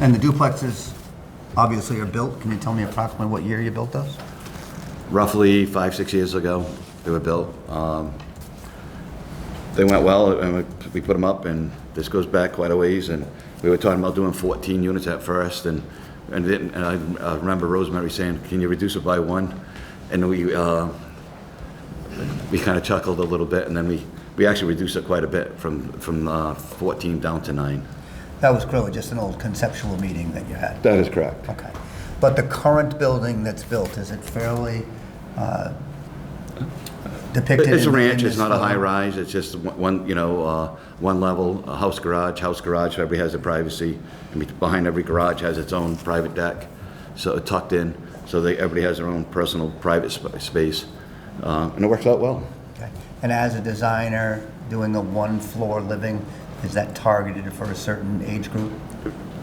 And the duplexes obviously are built. Can you tell me approximately what year you built those? roughly five, six years ago, they were built. Um, They went well, and we- we put them up, and this goes back quite a ways, and we were talking about doing 14 units at first, and, and didn't- and I uh, remember Rosemary saying, can you reduce it by one? And we, uh, we kind of chuckled a little bit, and then we, we actually reduced it quite a bit from, from uh, 14 down to nine. That was clearly just an old conceptual meeting that you had. That is correct. Okay. But the current building that's built, is it fairly uh, depicted? It's a in- in ranch, it's this not a photo? high-rise, it's just one, you know, uh, one level, a house garage, house garage, so everybody has their privacy, and be- behind every garage has its own private deck, so uh, tucked in, so they, everybody has their own personal private sp- space, Uh, and it works out well. Okay. And as a designer, doing a one-floor living, is that targeted for a certain age group?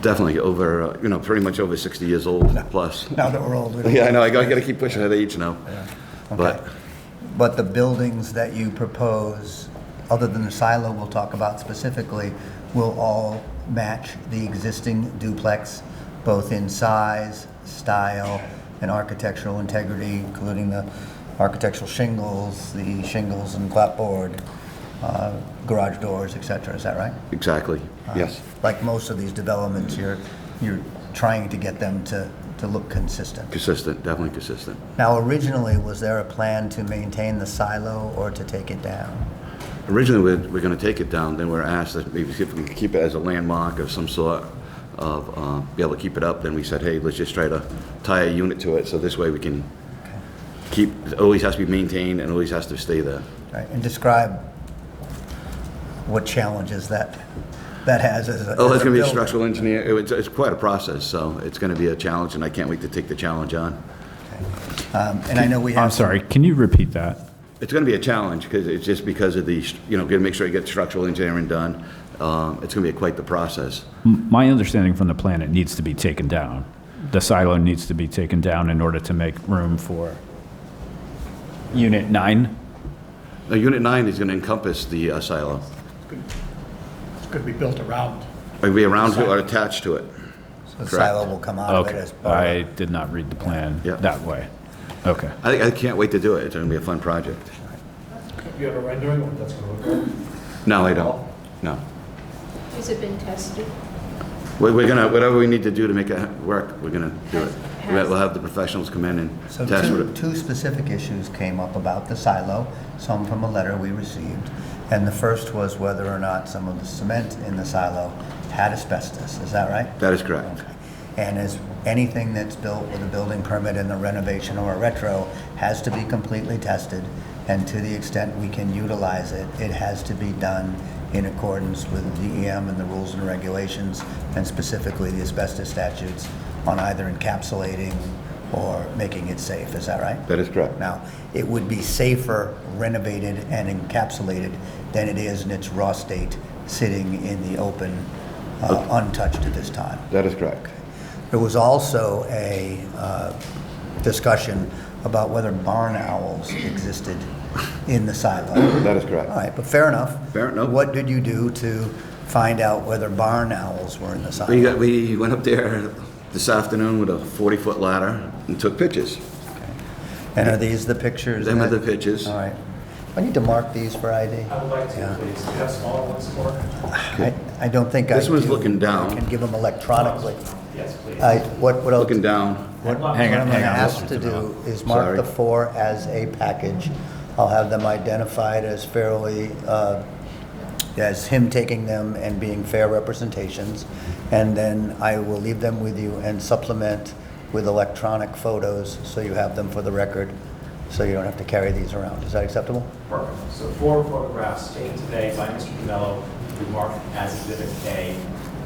Definitely over, uh, you know, pretty much over 60 years old plus. Now that we're older. Yeah, I know, I gotta gotta keep pushing that age now. But, Okay. But the buildings that you propose, other than the silo we'll talk about specifically, will all match the existing duplex, both in size, style, and architectural integrity, including the architectural shingles, the shingles and clapboard, uh, garage doors, et cetera. Is that right? exactly, yes. Like most of these developments, you're, you're trying to get them to, to look consistent. Consistent, definitely consistent. Now, originally, was there a plan to maintain the silo or to take it down? Originally, we're, we're gonna take it down, then we're asked that maybe see if we can keep it as a landmark of some sort of, uh, be able to keep it up, then we said, hey, let's just try to tie a unit to it, so this way we can keep, it always has to be maintained and always has to stay there. Right, And describe what challenges that, that has as a. Oh, it's gonna be a as builder. structural engineer, It was- it's quite a process, so it's gonna be a challenge, and I can't wait to take the challenge on. Um, And I know we I'm have, sorry, can you repeat that? It's gonna be a challenge, because it's just because of the, you know, gonna make sure you get structural engineering done, um, it's gonna be quite the process. M- My understanding from the plan, it needs to be taken down. The silo needs to be taken down in order to make room for unit nine? Now, Unit 9 is gonna encompass the uh, silo. It's going to be built around. It'll be around to or attached to it. the silo will come out of it Okay, as part of. I did not read the plan Yeah. that way. Okay. I, I can't wait to do it. It's going to be a fun project. You have a rendering of what that's going to look like? No, I don't. No. Has it been tested? We're, we're going to, whatever we need to do to make it work, we're going to do it. We'll we'll have the professionals come in and So test two, it. two specific issues came up about the silo, some from a letter we received. And the first was whether or not some of the cement in the silo had asbestos. Is that right? That is correct. And is anything that's built with a building permit in the renovation or a retro has to be completely tested, and to the extent we can utilize it, it has to be done in accordance with the DEM and the rules and regulations, and specifically the asbestos statutes on either encapsulating or making it safe, is that right? That is correct. Now, it would be safer renovated and encapsulated than it is in its raw state, sitting in the open, uh, untouched at this time. That is correct. There was also a uh, discussion about whether barn owls existed in the silo. That is All correct. right, but fair enough. Fair enough. What did you do to find out whether barn owls were in the We, silo? got, we went up there this afternoon with a 40-foot ladder and took pictures. And are these the pictures? Them are the that- pictures. All right. I need to mark these for ID. I would like Yeah. to, please, Do you have smaller ones more? I I don't think I This one's do. looking down. I can give them electronically. Yes, please. I- What what else? Looking down. What what I'm Hang on, going to hang on, ask Mr. to do Tabell. is mark Sorry. the four as a package. I'll have them identified as fairly, uh, as him taking them and being fair representations. And then I will leave them with you and supplement with electronic photos, so you have them for the record, so you don't have to carry these around. Is that acceptable? Perfect. So four photographs taken today by Mr. DeMello, remarked as Exhibit A,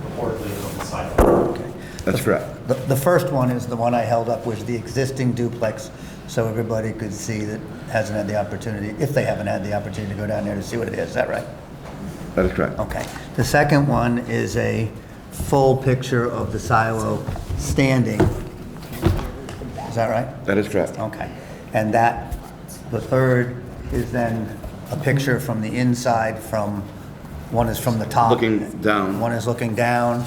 reportedly on the sidewalk. That's correct. The- The first one is the one I held up, was the existing duplex, so everybody could see that hasn't had the opportunity, if they haven't had the opportunity to go down there to see what it is. Is that right? That is correct. Okay. The second one is a full picture of the silo standing. Is that right? That is correct. Okay. And that, the third is then a picture from the inside from, one is from the top. Looking down. One is looking down,